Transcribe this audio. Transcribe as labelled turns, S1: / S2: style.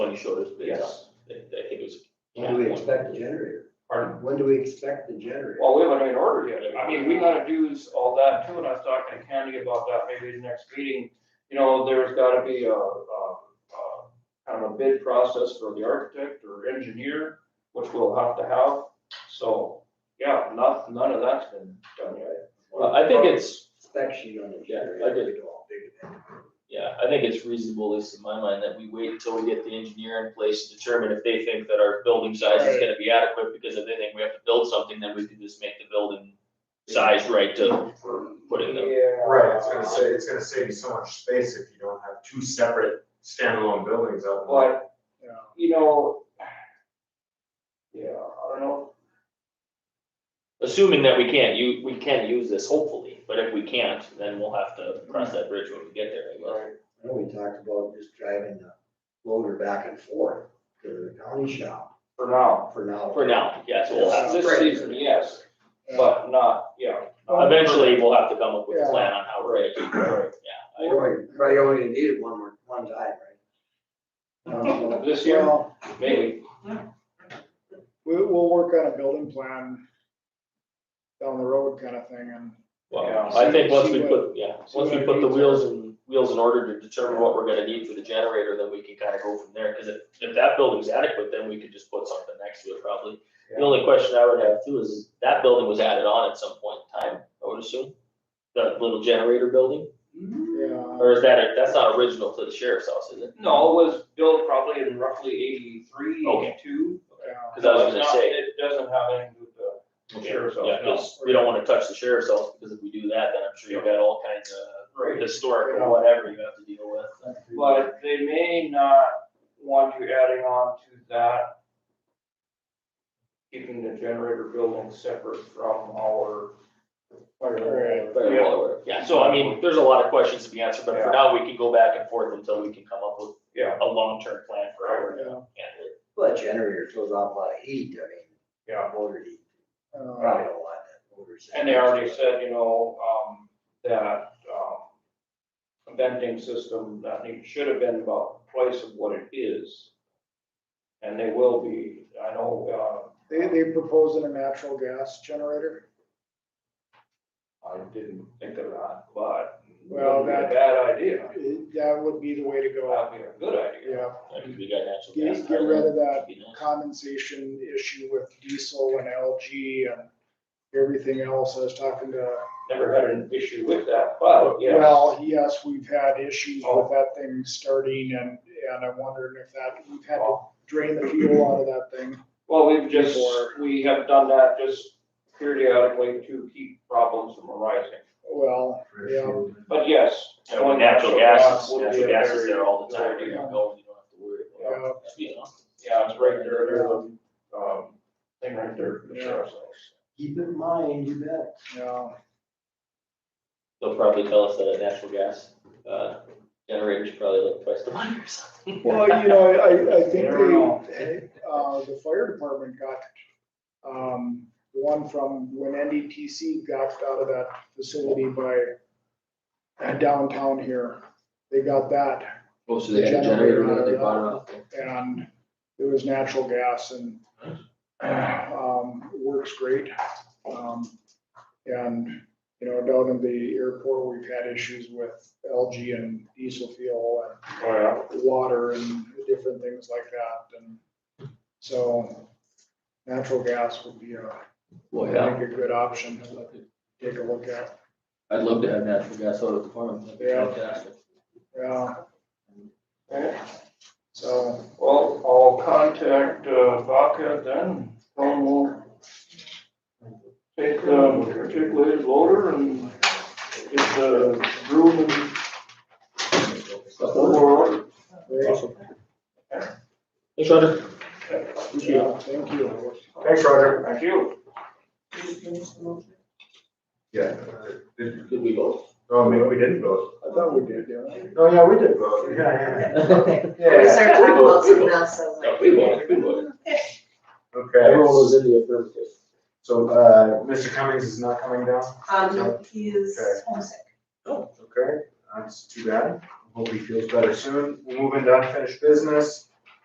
S1: Tony showed us bids on,
S2: Yes.
S1: I I think it was.
S3: When do we expect the generator?
S2: Pardon?
S3: When do we expect the generator?
S2: Well, we haven't even ordered yet. I mean, we gotta do all that too, and I was talking to Candy about that maybe the next meeting. You know, there's gotta be a, a, a, kind of a bid process for the architect or engineer, which we'll have to have. So, yeah, not, none of that's been done yet.
S1: Well, I think it's,
S3: Spec sheet on the
S1: Yeah, I
S3: generator.
S1: did.
S3: we know how big it is.
S1: yeah, I think it's reasonable, at least in my mind, that we wait until we get the engineer in place to determine if they think that our building size is
S3: Right.
S1: gonna be adequate, because if they think we have to build something, then we can just make the building size right to put in the,
S4: Right, it's gonna say, it's gonna save you so much space if you don't have two separate standalone buildings up.
S2: But,
S3: Yeah.
S2: you know, yeah, I don't know.
S1: assuming that we can't, you, we can use this hopefully, but if we can't, then we'll have to cross that bridge when we get there, I guess.
S3: I know we talked about just driving the loader back and forth to the county shop
S2: For now,
S3: for now.
S1: For now, yes, we'll have,
S2: this season, yes, but not, yeah.
S5: Uh,
S1: eventually we'll have to come up with a
S3: Yeah.
S1: plan on how we're gonna do it,
S3: We
S1: yeah. I-
S3: only, probably only needed one more, one time, right? Um,
S2: This year?
S5: Well,
S2: Maybe,
S5: we, we'll work on a building plan down the road kind of thing and.
S1: Well,
S2: Yeah.
S1: I think
S5: See-
S1: once
S5: see
S1: we
S5: what-
S1: put, yeah, once
S5: see what
S1: we
S5: our
S1: put the
S5: needs
S1: wheels and, wheels in order to determine what we're gonna need for the generator, then we can kinda go from there, cause if, if that building's adequate, then we could just put something next to it probably. The
S2: Yeah.
S1: only question I would have too is, that building was added on at some point in time, I would assume? The little generator building,
S2: Mm-hmm.
S5: Yeah,
S1: or is that, a- that's not original to the sheriff's house, is it?
S2: no, it was built probably in roughly eighty-three,
S1: Okay.
S2: eighty-two.
S5: yeah.
S1: Cause I was
S2: It's
S1: gonna
S2: not-
S1: say.
S2: It doesn't have anything to do with the.
S1: Okay,
S2: Sheriff's
S1: yeah,
S2: office.
S1: 'cause we don't wanna touch the sheriff's office, because if we do that, then I'm sure you've got all kinds of
S2: Right.
S1: historic or whatever you have to deal with.
S2: But they may not want you adding on to that. Keeping the generator building separate from our.
S5: Alright.
S1: But,
S2: Yeah.
S1: well, Yeah, so I mean, there's a lot of questions to be answered, but for
S2: Yeah.
S1: now, we can go back and forth until we can come up with
S2: Yeah,
S1: a long-term plan for how we're gonna handle it.
S3: Well, that generator throws off a lot of heat, I mean.
S2: Yeah.
S3: Motor heat,
S5: Uh,
S3: probably don't want that motor.
S2: and they already said, you know, um, that, um, venting system that need, should have been about twice of what it is. And they will be, I know,
S5: They, they proposing a natural gas generator.
S2: uh, I didn't think of that, but.
S5: Well,
S2: wouldn't
S5: that-
S2: be a Bad idea.
S5: It- That would be the way to go.
S2: That'd be a good idea.
S5: Yeah,
S1: Like, if we got natural
S5: Get-
S1: gas.
S5: get rid of that.
S1: that'd be nice.
S5: condensation issue with diesel and LG and everything else. I was talking to
S2: never had an issue with that, but yeah.
S5: Well, yes, we've had issues
S2: Oh.
S5: with that thing starting and, and I'm wondering if that, we've had
S2: Oh.
S5: to drain the fuel out of that thing.
S2: Well, we've just,
S5: Before-
S2: we have done that just periodically to keep problems from arising.
S5: Well, yeah,
S2: But yes.
S1: Yeah, with
S2: going
S1: natural gas,
S2: would
S1: natural
S2: be a
S1: gas is
S2: very
S1: there all the
S2: good
S1: time, you
S2: idea.
S1: don't go, you don't have to worry about it. Just be honest.
S2: Yeah, it's right there, there's a, um, thing right there. for the sheriff's office.
S3: Keep in mind, you bet.
S5: yeah,
S1: They'll probably tell us that a natural gas, uh, generator's probably like twice the money or something.
S5: well, you know, I, I
S2: You never know.
S5: think they, uh, the fire department got, um, one from when NDTC got out of that facility by uh, downtown here. They got that
S1: Oh, so
S5: they had a generator, but they bought
S1: it off.
S5: and it was natural gas and um, works great. Um, and, you know, down in the airport, we've had issues with algae and diesel fuel
S2: Oh,
S5: and water and different things like that. And so natural gas would be a,
S6: Well, yeah,
S5: I think, a good option to take a look at.
S6: I'd love to have natural gas out at the farm, that'd be
S5: Yeah.
S6: fantastic.
S5: Yeah,
S2: yeah.
S5: so,
S2: Well, I'll contact uh, Vaca then, and we'll take the articulated loader and get the broom and floor.
S5: great.
S1: Thanks, Roger.
S5: Yeah, thank you.
S4: Thanks, Roger.
S2: Thank you.
S4: Yeah.
S1: Did we vote?
S4: Oh, maybe we didn't vote.
S5: I thought we did, yeah.
S4: Oh, yeah, we did vote. Yeah,
S1: No,
S4: yeah.
S7: We
S4: Yeah.
S7: started talking about something else, I was like.
S1: we voted, we voted. Everyone
S4: Okay,
S1: was in the affirmative.
S4: so, uh, Mr. Cummings is not coming down?
S7: Um, he is
S4: Okay.
S7: homesick.
S4: Uh, Okay, that's too bad. Hope he feels better soon. We'll move into unfinished business.